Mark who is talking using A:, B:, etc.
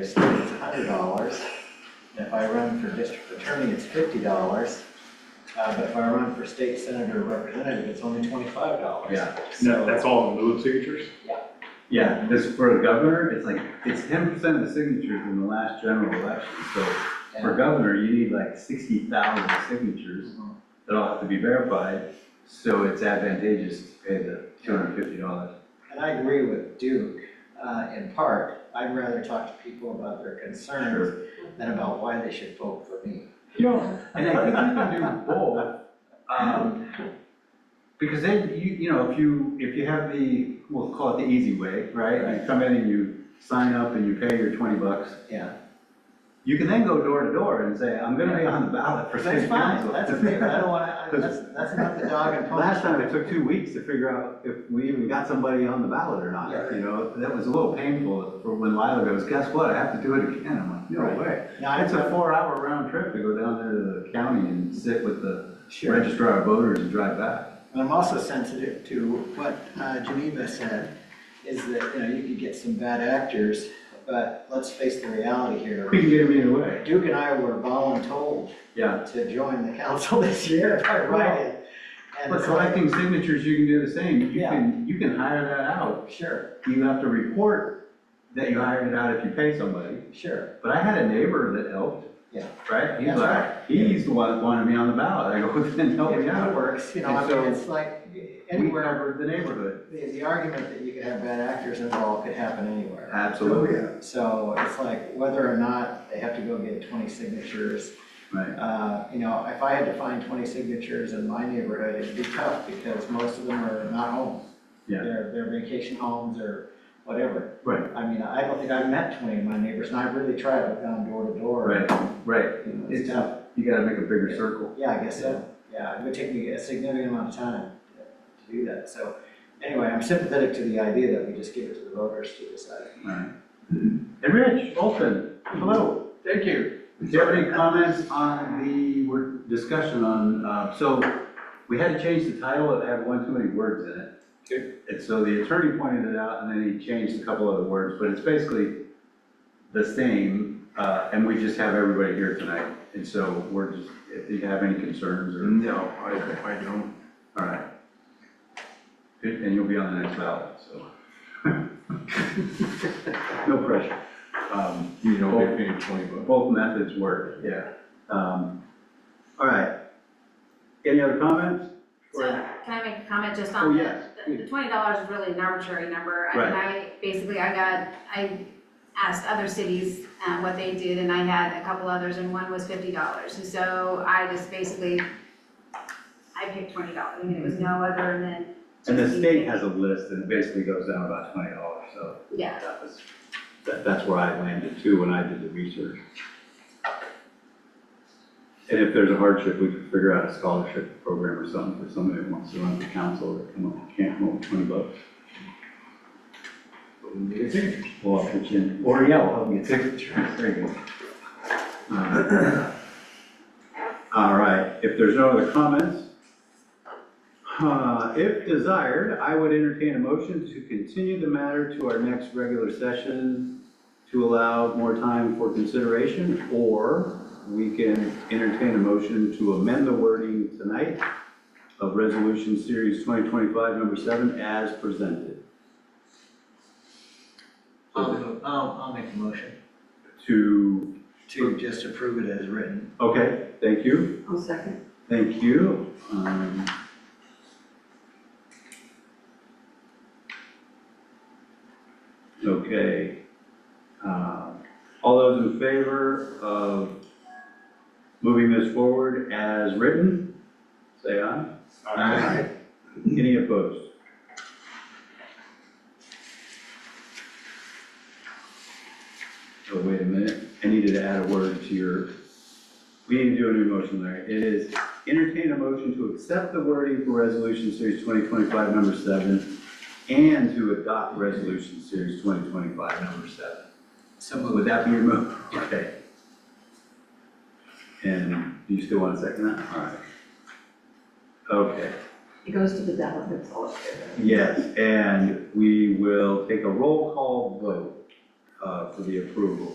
A: It's hundred dollars, and if I run for district attorney, it's fifty dollars. Uh, but if I run for state senator or representative, it's only twenty-five dollars.
B: Yeah.
C: No,
A: So,
C: that's all in lieu of signatures?
B: Yeah, this, for the governor, it's like, it's ten percent of the signatures in the last general election, so for governor, you need like sixty thousand signatures that all have to be verified, so it's advantageous to pay the two hundred and fifty dollars.
A: and I agree with Duke, uh, in part, I'd rather talk to people about their concerns than about why they should vote for me.
B: No, and I think you can do both, um, because then, you, you know, if you, if you have the, we'll call it the easy way, right? You come in and you sign up and you pay your twenty bucks,
A: Yeah,
B: You can then go door to door and say, I'm gonna be on the ballot for
A: that's
B: city
A: fine,
B: council.
A: that's okay, but I don't wanna, I- that's, that's not the dog and pony.
B: Last time it took two weeks to figure out if we even got somebody on the ballot or not,
A: Yeah.
B: you know, that was a little painful for when Lila goes, guess what, I have to do it again, I'm like,
A: Right.
B: no way. Uh,
A: No, I-
B: It's a four hour round trip to go down there to the county and sit with the
A: Sure.
B: registrar of voters and drive back.
A: And I'm also sensitive to what uh, Geneva said, is that, you know, you could get some bad actors, but let's face the reality here.
B: We can get them either way.
A: Duke and I were voluntold
B: Yeah,
A: to join the council this year by writing. And
B: but
A: it's like,
B: collecting signatures, you can do the same, you
A: Yeah.
B: can, you can hire that out.
A: sure,
B: You have to report that you hired it out if you pay somebody.
A: sure,
B: But I had a neighbor that helped.
A: Yeah.
B: Right? He's
A: That's
B: like, he's the one that wanted me on the ballot. I go, then help
A: if
B: me
A: it
B: out.
A: works, you know, I
B: And so-
A: mean, it's like,
B: We
A: anywhere,
B: covered the neighborhood.
A: the, the argument that you could have bad actors involved could happen anywhere.
B: Absolutely.
A: So it's like, whether or not they have to go get twenty signatures,
B: Right.
A: Uh, You know, if I had to find 20 signatures in my neighborhood, it'd be tough because most of them are not home.
B: Yeah.
A: They're, they're vacation homes or whatever.
B: Right.
A: I mean, I don't think I've met 20 of my neighbors, and I've really tried, I've gone door to door.
B: Right, right.
A: You know, It's
B: It's,
A: tough.
B: you gotta make a bigger circle.
A: Yeah, I guess so. Yeah, it would take me a significant amount of time to do that. So anyway, I'm sympathetic to the idea that we just give it to the voters to decide.
B: Alright. And Rich Olson, hello.
D: Thank you.
B: Do you have any comments on the word- discussion on, uh, so we had to change the title. It had one too many words in it.
D: Okay.
B: And so the attorney pointed it out and then he changed a couple other words, but it's basically the same, uh, and we just have everybody here tonight. And so we're just, if you have any concerns or.
D: No, I, I don't.
B: All right. Good, and you'll be on the next ballot, so. No pressure. Um,
D: You
B: know,
D: they paid twenty bucks.
B: Both methods work, yeah. Um, All right. Any other comments?
E: So can I make a comment just
B: Oh,
E: on the-
B: yes.
E: the, the twenty dollars is really an arbitrary number. I mean, I, basically, I got, I asked other cities, uh, what they did, and I had a couple others, and one was fifty dollars. And so I just basically, I picked twenty dollars, and it was no other than.
B: And the
E: just me
B: state
E: picking-
B: has a list and it basically goes down about twenty dollars, so
E: Yeah,
B: that was, that, that's where I landed too when I did the research. And if there's a hardship, we could figure out a scholarship program or something for somebody that wants to run for council or come up, can't come up with twenty bucks. Well, I'll pitch in, or yeah, we'll help you get signatures, there you go. Uh, All right, if there's no other comments, uh, if desired, I would entertain a motion to continue the matter to our next regular session to allow more time for consideration, or we can entertain a motion to amend the wording tonight of Resolution Series 2025, number seven, as presented.
A: I'll, I'll, I'll make a motion
B: To
A: to just approve it as written.
B: Okay, thank you,
F: I'll second.
B: thank you. Um, Okay. Uh, All those in favor of moving this forward as written, say aye. Aye. Any opposed? Oh, wait a minute, I needed to add a word to your, we need to do a new motion, Larry. It is entertain a motion to accept the wording for resolution series twenty twenty-five, number seven, and to adopt resolution series twenty twenty-five, number seven.
A: So
B: Would that be your move? Okay. And do you still want to second that? All right. Okay.
F: It goes to the delegates all
B: Yes, and we will take a roll call vote uh, for the approval.